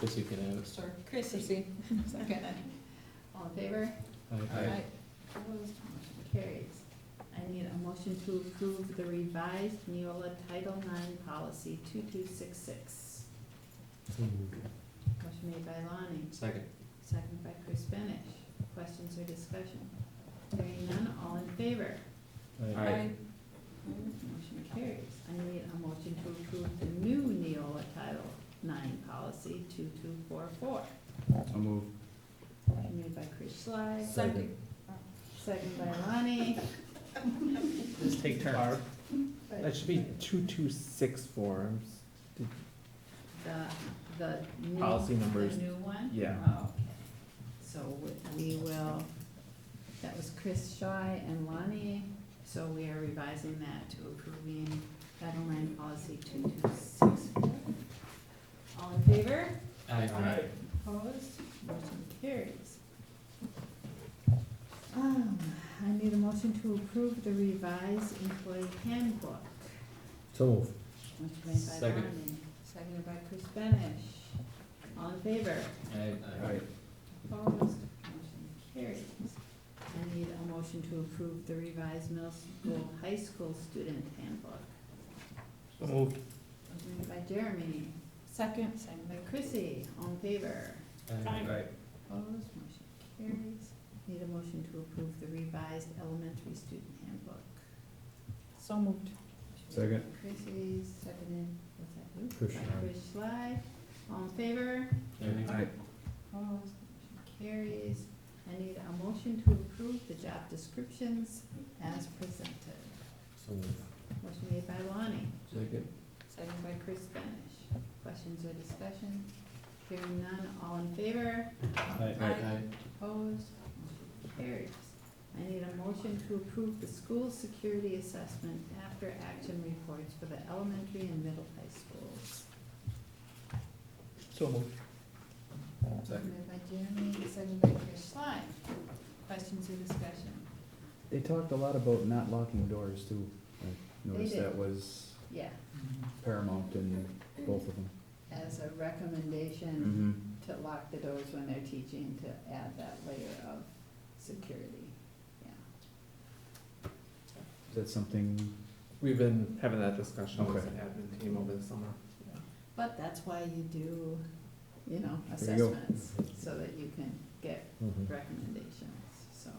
Guess you can have it. Sure. Chrissy. Second. All in favor? Aye. Aye. Opposed, motion carries. I need a motion to approve the revised Neola Title IX Policy two-two-six-six. So moved. Motion made by Lonnie, Second. second by Chris Benish. Questions or discussion? Hearing none, all in favor? Aye. Motion carries. I need a motion to approve the new Neola Title Nine Policy two-two-four-four. I'll move. Motion made by Chris Schley. Second. Second by Lonnie. Just take turns. That should be two, two, six forms. The, the new. Policy numbers. The new one? Yeah. Oh, okay. So we- we will, that was Chris Shy and Lonnie, so we are revising that to approving guideline policy two two six four. All in favor? Aye. Opposed, motion carries. Um, I need a motion to approve the revised employee handbook. So moved. Motion made by Second. Lonnie, seconded by Chris Benish. All in favor? Aye. Aye. Opposed, motion carries. I need a motion to approve the revised middle school, high school student handbook. So moved. Motion made by Jeremy, second, seconded by Chrissy. All in favor? Aye. Opposed, motion carries. Need a motion to approve the revised elementary student handbook. So moved. Second. Chrissy, seconded, what's that, who? Chris By Schley. Chris Schley. all in favor? Aye. Opposed, motion carries. I need a motion to approve the job descriptions as presented. So moved. Motion made by Lonnie, Second. seconded by Chris Benish. Questions or discussion? Hearing none, all in favor? Aye. Aye. Opposed, motion carries. I need a motion to approve the school security assessment after action reports for the elementary and middle high schools. So moved. Seconded by Jeremy, seconded by Chris Sly. Questions or discussion? They talked a lot about not locking doors too. I noticed They did. that was Yeah, Mm-hmm. paramount in both of them. as a recommendation Mm-hmm. to lock the doors when they're teaching, to add that layer of security, yeah. Is that something, We've been having that discussion with Okay. the admin team over the summer. But that's why you do, you know, There you go. assessments, so that you can get Mm-hmm. recommendations, so.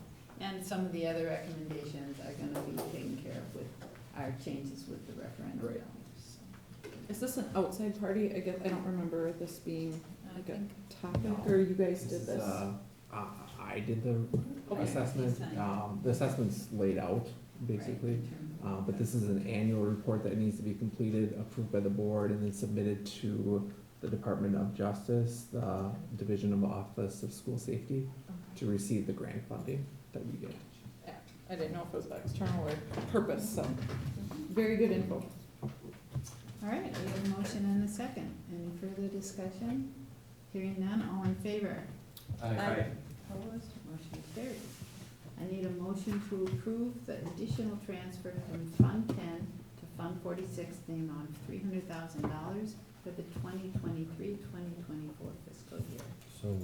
And some of the other recommendations are gonna be taken care of with our changes with the referendum. Right. so. Is this an outside party? I guess, I don't remember this being I Okay. think topic, or you guys This did is, this? Oh, uh, Uh, I did the Okay. assessment, um, the assessment's laid out, basically. Uh, but this is an annual report that needs to be completed, approved by the board, and then submitted to the Department of Justice, the Division of Office of School Safety, to receive the grant funding that we get. I didn't know if it was external or purpose, so, very good info. All right, we have a motion and a second. Any further discussion? Hearing none, all in favor? Aye. Opposed, motion carries. I need a motion to approve the additional transfer from Fund Ten to Fund Forty-six, the amount of three hundred thousand dollars for the 2023-2024 fiscal year. So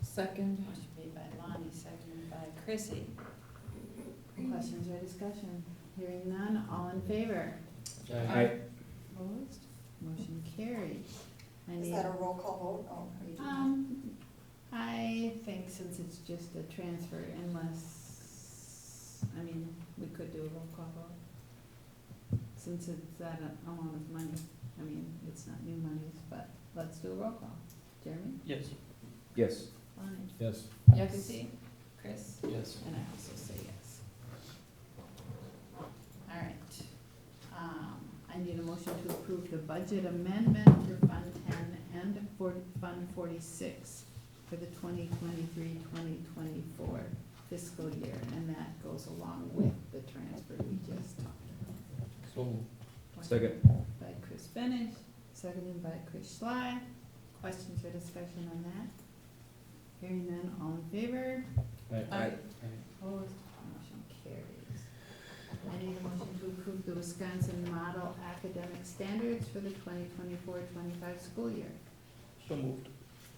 Second, Motion made by Lonnie, seconded by Chrissy. Questions or discussion? Hearing none, all in favor? I, Opposed, motion carries. I Is need, that a roll call vote? Oh, are you doing that? um, I think since it's just a transfer, unless, I mean, we could do a roll call vote. Since it's that a- amount of money, I mean, it's not new monies, but let's do a roll call. Jeremy? Yes. Yes. Lonnie? Yes. Yes. Chrissy? Chris? Yes. And I also say yes. All right. Um, I need a motion to approve the budget amendment for Fund Ten and for Fund Forty-six for the 2023-2024 fiscal year, and that goes along with the transfer we just talked about. So Second. By Chris Benish, seconded by Chris Sly. Questions or discussion on that? Hearing none, all in favor? Aye. Opposed, motion carries. I need a motion to approve the Wisconsin Model Academic Standards for the 2024-25 school year. So moved.